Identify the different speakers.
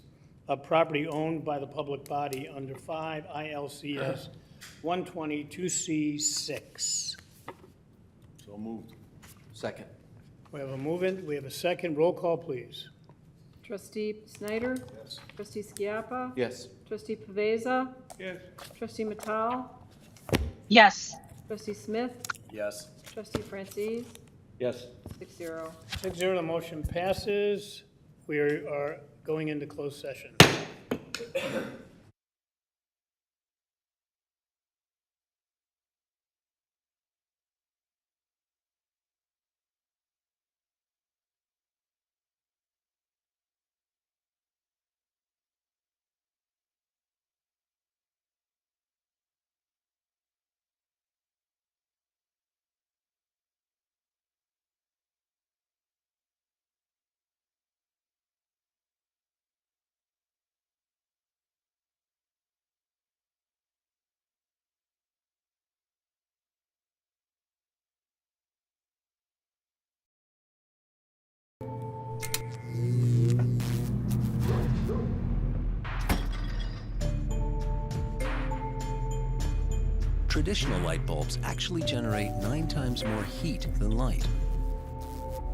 Speaker 1: of property owned by the public body under 5 ILCS 122C6.
Speaker 2: So moved.
Speaker 3: Second.
Speaker 1: We have a move-in, we have a second, roll call, please.
Speaker 4: Trustee Snyder? Yes. Trustee Skiappa?
Speaker 3: Yes.
Speaker 4: Trustee Pavesa?
Speaker 2: Yes.
Speaker 4: Trustee Matal?
Speaker 5: yes,
Speaker 4: Trustee Smith?
Speaker 3: Yes.
Speaker 4: Trustee Francis?
Speaker 3: Yes.
Speaker 4: Six zero.
Speaker 1: Six zero, the motion passes. We are going into closed session.
Speaker 6: Traditional light bulbs actually generate nine times more heat than light.